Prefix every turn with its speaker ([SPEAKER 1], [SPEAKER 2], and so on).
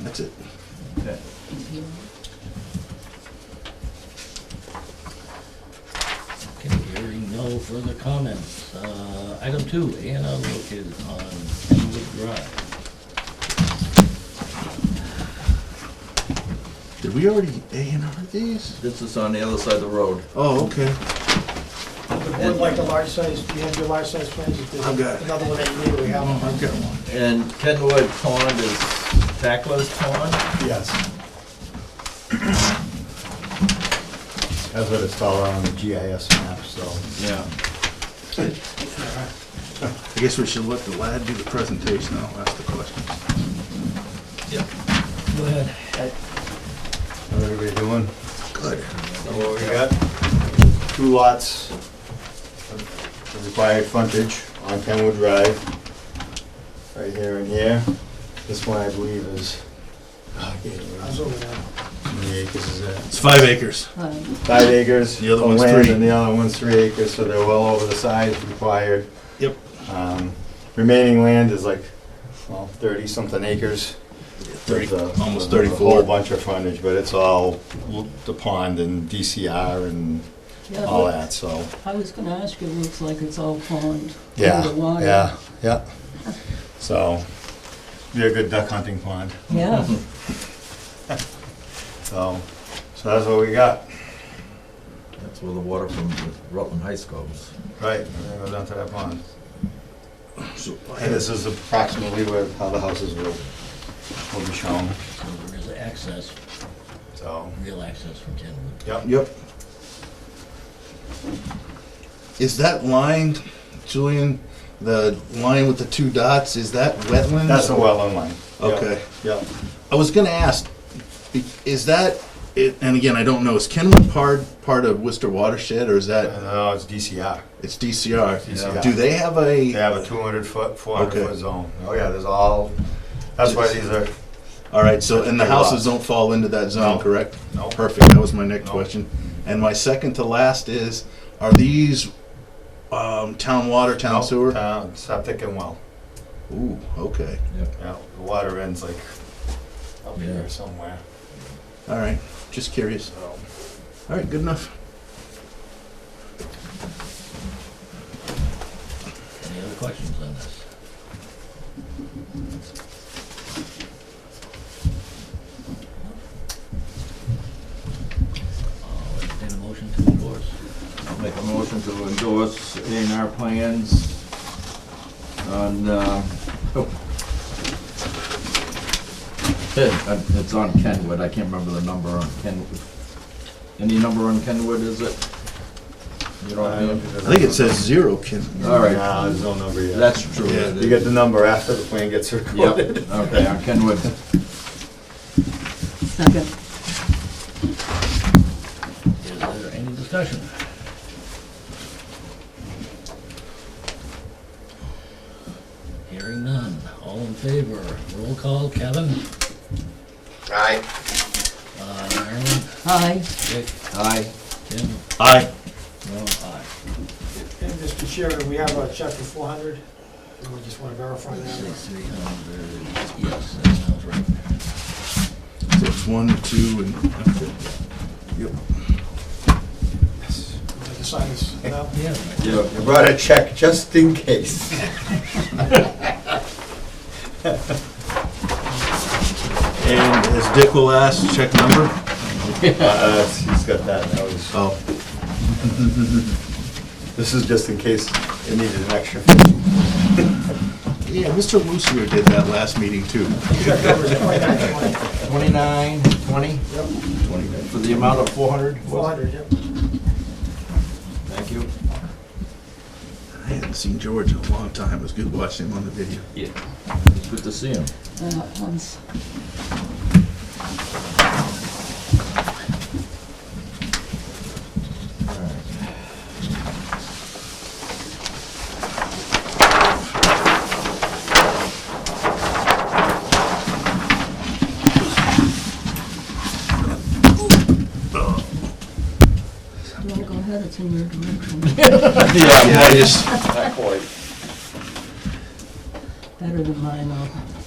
[SPEAKER 1] That's it.
[SPEAKER 2] Okay.
[SPEAKER 3] Okay, hearing no further comments. Uh, Item two, A and R located on Kenwood Drive.
[SPEAKER 1] Did we already A and R these?
[SPEAKER 2] This is on the other side of the road.
[SPEAKER 1] Oh, okay.
[SPEAKER 4] The board like the large size, you have your large size plans, if there's
[SPEAKER 1] I've got it.
[SPEAKER 4] another one that you need, we have
[SPEAKER 1] Oh,
[SPEAKER 4] one.
[SPEAKER 1] I've got one.
[SPEAKER 2] And Kenwood Pond is Tackla's Pond.
[SPEAKER 4] Yes.
[SPEAKER 5] That's what it's all on the GIS map, so.
[SPEAKER 2] Yeah.
[SPEAKER 1] I guess we should let the lad do the presentation. I'll ask the questions.
[SPEAKER 2] Yep.
[SPEAKER 3] Go ahead.
[SPEAKER 5] How's everybody doing?
[SPEAKER 1] Good.
[SPEAKER 5] So what we got? Two lots of required frontage on Kenwood Drive, right here and here. This one, I believe, is, oh, I can't
[SPEAKER 4] I was
[SPEAKER 5] remember.
[SPEAKER 4] over there.
[SPEAKER 5] How many acres is it?
[SPEAKER 1] It's five acres.
[SPEAKER 5] Five acres.
[SPEAKER 1] The other
[SPEAKER 5] of
[SPEAKER 1] one's
[SPEAKER 5] land,
[SPEAKER 1] three.
[SPEAKER 5] And the other one's three acres, so they're well over the size required.
[SPEAKER 1] Yep.
[SPEAKER 5] Um, Remaining land is like, well, thirty-something acres.
[SPEAKER 1] Thirty,
[SPEAKER 5] With a-
[SPEAKER 1] almost
[SPEAKER 5] with A whole
[SPEAKER 1] thirty-four.
[SPEAKER 5] bunch of frontage, but it's all l- the pond and DCR and
[SPEAKER 6] Yeah,
[SPEAKER 5] all
[SPEAKER 6] look,
[SPEAKER 5] that, so.
[SPEAKER 6] I was gonna ask, it looks like it's all pond.
[SPEAKER 5] Yeah,
[SPEAKER 6] underwater.
[SPEAKER 5] yeah, yeah. So, be a good duck hunting pond,
[SPEAKER 6] Yeah,
[SPEAKER 5] so, so that's what we got.
[SPEAKER 2] That's where the water from the Rutland Heights goes.
[SPEAKER 5] Right, and then go down to that pond. uh,
[SPEAKER 1] So I
[SPEAKER 5] And
[SPEAKER 1] had
[SPEAKER 5] this is approximately where, how the houses will, will be shown,
[SPEAKER 3] So there is access,
[SPEAKER 5] so,
[SPEAKER 3] real access from Kenwood.
[SPEAKER 5] yep.
[SPEAKER 1] Yep. Is that line, Julian, the line with the two dots, is that wetlands?
[SPEAKER 5] That's the wetland line. Yep,
[SPEAKER 1] Okay.
[SPEAKER 5] Yep,
[SPEAKER 1] I was gonna ask, be- is that, it- and again, I don't know, is Kenwood part, part of Worcester watershed, or is that,
[SPEAKER 5] and now it's DCR.
[SPEAKER 1] it's DCR?
[SPEAKER 5] DCR.
[SPEAKER 1] Do they have a?
[SPEAKER 5] They have a two hundred foot, four
[SPEAKER 1] Okay.
[SPEAKER 5] hundred foot zone. Oh, yeah, there's all, that's why these are,
[SPEAKER 1] All right, so, and the
[SPEAKER 5] Big lots.
[SPEAKER 1] houses don't fall into that zone,
[SPEAKER 5] No.
[SPEAKER 1] correct?
[SPEAKER 5] No.
[SPEAKER 1] Perfect, that was my next
[SPEAKER 5] No.
[SPEAKER 1] question. And my second to last is, are these um, town water, town sewer?
[SPEAKER 5] Town, uh, septic and well.
[SPEAKER 1] Ooh, okay,
[SPEAKER 2] Yep.
[SPEAKER 5] Yeah, the water ends like up
[SPEAKER 2] Yeah.
[SPEAKER 5] here somewhere,
[SPEAKER 1] all right, just curious.
[SPEAKER 5] so.
[SPEAKER 1] All right, good enough.
[SPEAKER 3] Any other questions on this? I'll entertain a motion to endorse.
[SPEAKER 2] I'll make a motion to endorse A and R plans on, uh, oh. Eh, It's on Kenwood, I can't remember the number on Kenwood. Any number on Kenwood, is it? You don't have?
[SPEAKER 1] I think it says zero, Ken.
[SPEAKER 2] All right,
[SPEAKER 5] No, there's no number yet.
[SPEAKER 2] that's true.
[SPEAKER 1] Yeah,
[SPEAKER 2] it
[SPEAKER 5] You get
[SPEAKER 2] is.
[SPEAKER 5] the number after the plan gets
[SPEAKER 2] Yep,
[SPEAKER 5] recorded.
[SPEAKER 2] okay, on Kenwood.
[SPEAKER 6] second.
[SPEAKER 3] Is there any discussion? Hearing none, all in favor, roll call, Kevin,
[SPEAKER 5] Aye.
[SPEAKER 3] uh, Marilyn,
[SPEAKER 6] Aye,
[SPEAKER 3] Dick,
[SPEAKER 2] Aye.
[SPEAKER 3] Tim,
[SPEAKER 1] Aye.
[SPEAKER 3] no, aye.
[SPEAKER 4] And Mr. Chairman, we have a chapter four hundred, and we just wanna verify
[SPEAKER 3] Say
[SPEAKER 4] that.
[SPEAKER 3] three hundred, yes, that sounds right.
[SPEAKER 1] So it's one, two, and, yep.
[SPEAKER 4] We have to sign this now.
[SPEAKER 3] Yeah, right.
[SPEAKER 2] Yeah,
[SPEAKER 5] You brought a check just in case. Uh,
[SPEAKER 1] And as Dick will ask, check number?
[SPEAKER 5] Uh, He's got that, that was,
[SPEAKER 1] Oh,
[SPEAKER 5] this is just in case it needed an extra. fifty.
[SPEAKER 1] yeah, Mr. Lucier did that last meeting too.
[SPEAKER 4] Check number is twenty-nine twenty.
[SPEAKER 2] Twenty-nine, twenty?
[SPEAKER 4] Yep.
[SPEAKER 2] For the amount of four hundred?
[SPEAKER 4] Four hundred, yep.
[SPEAKER 2] Thank you.
[SPEAKER 1] I hadn't seen George in a long time. It was good watching him on the video.
[SPEAKER 2] Yeah. Good to see him.
[SPEAKER 6] that one's, well, go ahead, it's in your direction,
[SPEAKER 1] Yeah, I just,
[SPEAKER 5] Not quite.
[SPEAKER 6] better than mine, though.